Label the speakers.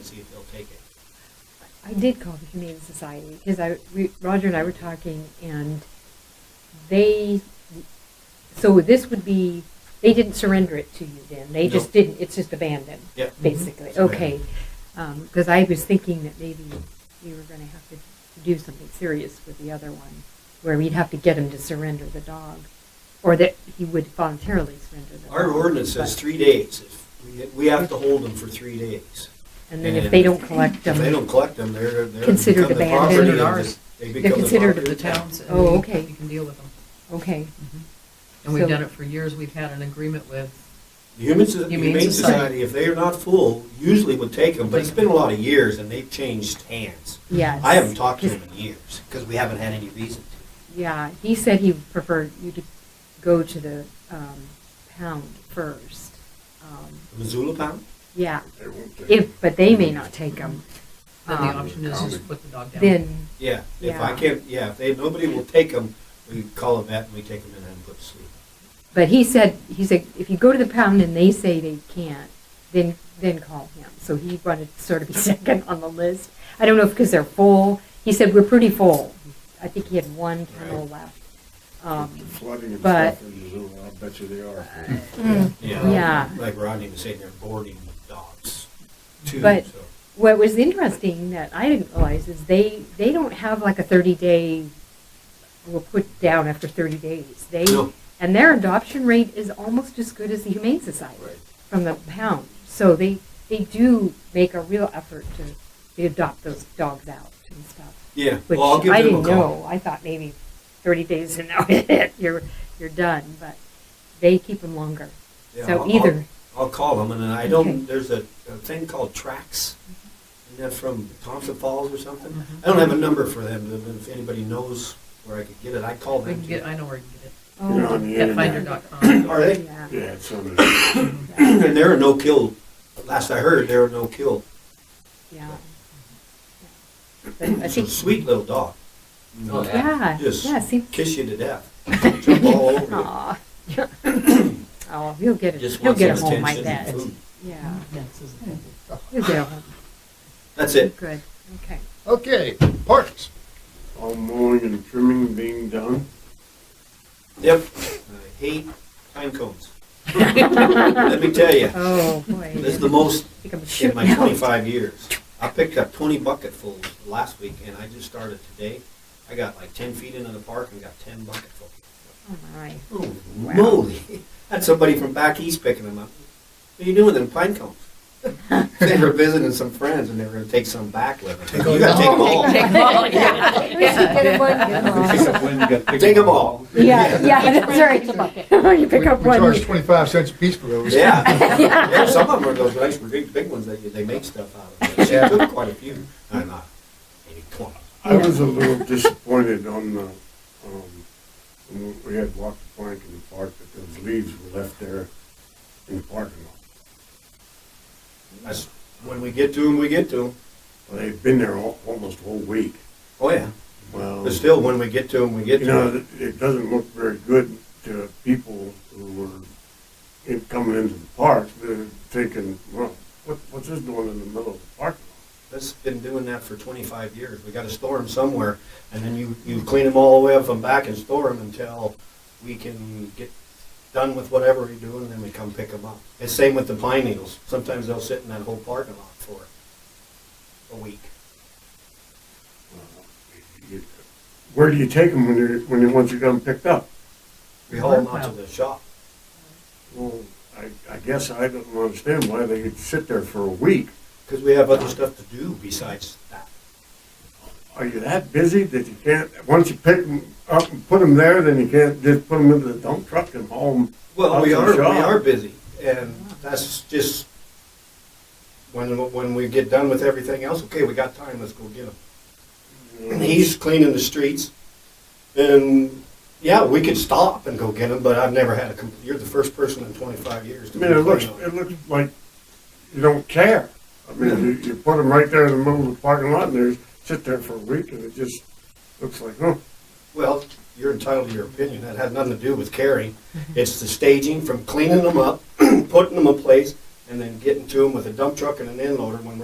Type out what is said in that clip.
Speaker 1: see if they'll take it.
Speaker 2: I did call the Humane Society because I we, Roger and I were talking, and they so this would be they didn't surrender it to you then they just
Speaker 1: No.
Speaker 2: didn't it's just abandoned
Speaker 1: Yep. Mhm.
Speaker 2: basically
Speaker 1: It's
Speaker 2: okay because I was thinking that maybe we were going to have to do something serious with the other one where we'd have to get him to surrender the dog or that he would voluntarily surrender the
Speaker 1: Our
Speaker 2: dog,
Speaker 1: ordinance says
Speaker 2: but-
Speaker 1: three days. If we- We have to hold them for three days.
Speaker 2: and then if they don't collect them
Speaker 1: If they don't collect them, they're, they're.
Speaker 2: Considered
Speaker 1: become the
Speaker 2: abandoned.
Speaker 1: property of the-
Speaker 3: They're ours.
Speaker 1: They become the
Speaker 2: considered
Speaker 1: property
Speaker 3: The
Speaker 1: of
Speaker 3: towns. and
Speaker 2: Oh,
Speaker 3: we-
Speaker 2: okay.
Speaker 3: We can deal with them.
Speaker 2: okay
Speaker 3: And we've
Speaker 2: So-
Speaker 3: done it for years. We've had an agreement with,
Speaker 1: The Human, So-
Speaker 3: Humane
Speaker 1: Humane
Speaker 3: Society.
Speaker 1: Society, if they are not full, usually would take them, but it's been a lot of years and they've changed hands.
Speaker 2: yes
Speaker 1: I haven't talked to them in years, because we haven't had any reason to.
Speaker 2: Yeah, he said he preferred you to go to the um, pound first. Um,
Speaker 1: Missoula Pound?
Speaker 2: yeah,
Speaker 4: They won't take it.
Speaker 2: if but they may not take them.
Speaker 3: then the option is
Speaker 4: County.
Speaker 3: just put the dog down.
Speaker 2: Ah. Then
Speaker 1: Yeah, if I
Speaker 2: Yeah.
Speaker 1: can't, yeah, if they, nobody will take them, we call a vet and we take them in and put to sleep.
Speaker 2: But he said, he said, if you go to the pound and they say they can't, then, then call him. So he wanted to sort of be second on the list. I don't know if because they're full. He said, we're pretty full. I think he had one kennel
Speaker 4: Right.
Speaker 2: left.
Speaker 4: The
Speaker 2: Um,
Speaker 4: Flooding and
Speaker 2: but-
Speaker 4: stuff in Missoula, I bet you they are.
Speaker 2: Yeah.
Speaker 1: Like Rodney was saying, they're boarding dogs too, so.
Speaker 2: But- What was interesting that I didn't realize is they, they don't have like a thirty day, will put down after thirty days. They,
Speaker 1: No.
Speaker 2: and their adoption rate is almost as good as the Humane Society
Speaker 1: Right.
Speaker 2: from the pound. So they, they do make a real effort to, to adopt those dogs out and stuff.
Speaker 1: Yeah,
Speaker 2: Which
Speaker 1: well, I'll give
Speaker 2: I
Speaker 1: them a
Speaker 2: didn't
Speaker 1: call.
Speaker 2: know. I thought maybe thirty days and now it, you're, you're done, but they keep them longer.
Speaker 1: Yeah,
Speaker 2: So
Speaker 1: I'll-
Speaker 2: either,
Speaker 1: I'll call them, and then I
Speaker 2: Okay.
Speaker 1: don't, there's a, a thing called Trax, isn't that from Thompson Falls or something?
Speaker 3: Mm-hmm.
Speaker 1: I don't have a number for them, but if anybody knows where I could get it, I call
Speaker 3: We
Speaker 1: them.
Speaker 3: can get, I know where you can
Speaker 4: You're
Speaker 2: oh,
Speaker 4: on the
Speaker 3: get it,
Speaker 4: internet.
Speaker 3: petfinder.com.
Speaker 1: too. Are they?
Speaker 2: yeah.
Speaker 4: Yeah, it's on the,
Speaker 1: And they're a no-kill, last I heard, they're a no-kill,
Speaker 2: Yeah. But I
Speaker 1: it's a
Speaker 2: think,
Speaker 1: sweet little dog,
Speaker 5: Oh,
Speaker 2: yeah,
Speaker 1: just
Speaker 2: yeah, see.
Speaker 1: kiss you to death, jump all over you.
Speaker 2: Aw. Oh, he'll get it,
Speaker 1: Just
Speaker 2: he'll
Speaker 1: wants
Speaker 2: get a
Speaker 1: some
Speaker 2: home, I
Speaker 1: attention and
Speaker 2: bet.
Speaker 1: food.
Speaker 2: Yeah,
Speaker 3: Yes, isn't it?
Speaker 2: he'll get a home.
Speaker 1: That's it.
Speaker 2: Good, okay.
Speaker 5: Okay, parks.
Speaker 4: all mowing and trimming being done.
Speaker 1: Yep, I hate pine cones. Let me tell you,
Speaker 2: Oh, boy.
Speaker 1: this is the most
Speaker 2: Think I'm
Speaker 1: in
Speaker 2: shooting
Speaker 1: my
Speaker 2: out.
Speaker 1: 25 years. I picked up 20 bucketfuls last week, and I just started today. I got like 10 feet into the park and got 10 bucketfuls.
Speaker 2: Oh, my.
Speaker 1: Oh,
Speaker 2: Wow.
Speaker 1: moly! Had somebody from back east picking them up. What are you doing with them pine cones? they were visiting some friends, and they were going to take some back with them. You got to take them all.
Speaker 3: Take them all, yeah.
Speaker 6: Pick up one, you gotta pick
Speaker 1: Take
Speaker 6: up
Speaker 1: them all.
Speaker 2: Yeah, yeah, that's right. You pick up
Speaker 5: We we
Speaker 2: one.
Speaker 5: charge twenty-five cents a piece for those.
Speaker 1: Yeah. yeah, some of them are those nice, big, big ones that you, they make stuff out of. But She took quite a few. I'm not maybe 20.
Speaker 4: I was a little disappointed on the, um, when we had walked the plank in the park, that those leaves were left there in the parking lot.
Speaker 1: That's when we get to them, we get to them.
Speaker 4: Well, they've been there al- almost a whole week.
Speaker 1: Oh yeah,
Speaker 4: Well,
Speaker 1: but still, when we get to them, we get
Speaker 4: you
Speaker 1: to
Speaker 4: know,
Speaker 1: them.
Speaker 4: it- it doesn't look very good to people who were in, coming into the park, they're thinking, well, what, what's this doing in the middle of the parking lot?
Speaker 1: That's been doing that for 25 years. We got to store them somewhere, and then you you clean them all the way up and back and store them until we can get done with whatever we do, and then we come pick them up. It's same with the pine needles. Sometimes they'll sit in that whole parking lot for a week.
Speaker 4: You- Where do you take them when you're, when you, once you got them picked up?
Speaker 1: We haul them out to the shop.
Speaker 4: Well, I, I guess I don't understand why they could sit there for a week.
Speaker 1: Because we have other stuff to do besides that.
Speaker 4: Are you that busy that you can't, once you pick them up and put them there, then you can't just put them into the dump truck and haul them?
Speaker 1: Well,
Speaker 4: out
Speaker 1: we
Speaker 4: to the
Speaker 1: are, we
Speaker 4: shop?
Speaker 1: are busy, and that's just, when, when we get done with everything else, okay, we got time, let's go get them. And he's cleaning the streets, and, yeah, we could stop and go get them, but I've never had a, compl- you're the first person in twenty-five years
Speaker 4: I
Speaker 1: to
Speaker 4: mean, it looks,
Speaker 1: complain on
Speaker 4: it
Speaker 1: it.
Speaker 4: looks like you don't care. I mean, you, you put them right there in the middle of the parking lot and they sit there for a week and it just looks like, oh,
Speaker 1: Well, you're entitled to your opinion, that has nothing to do with caring, it's the staging from cleaning them up, putting them in place, and then getting to them with a dump truck and an end loader when we're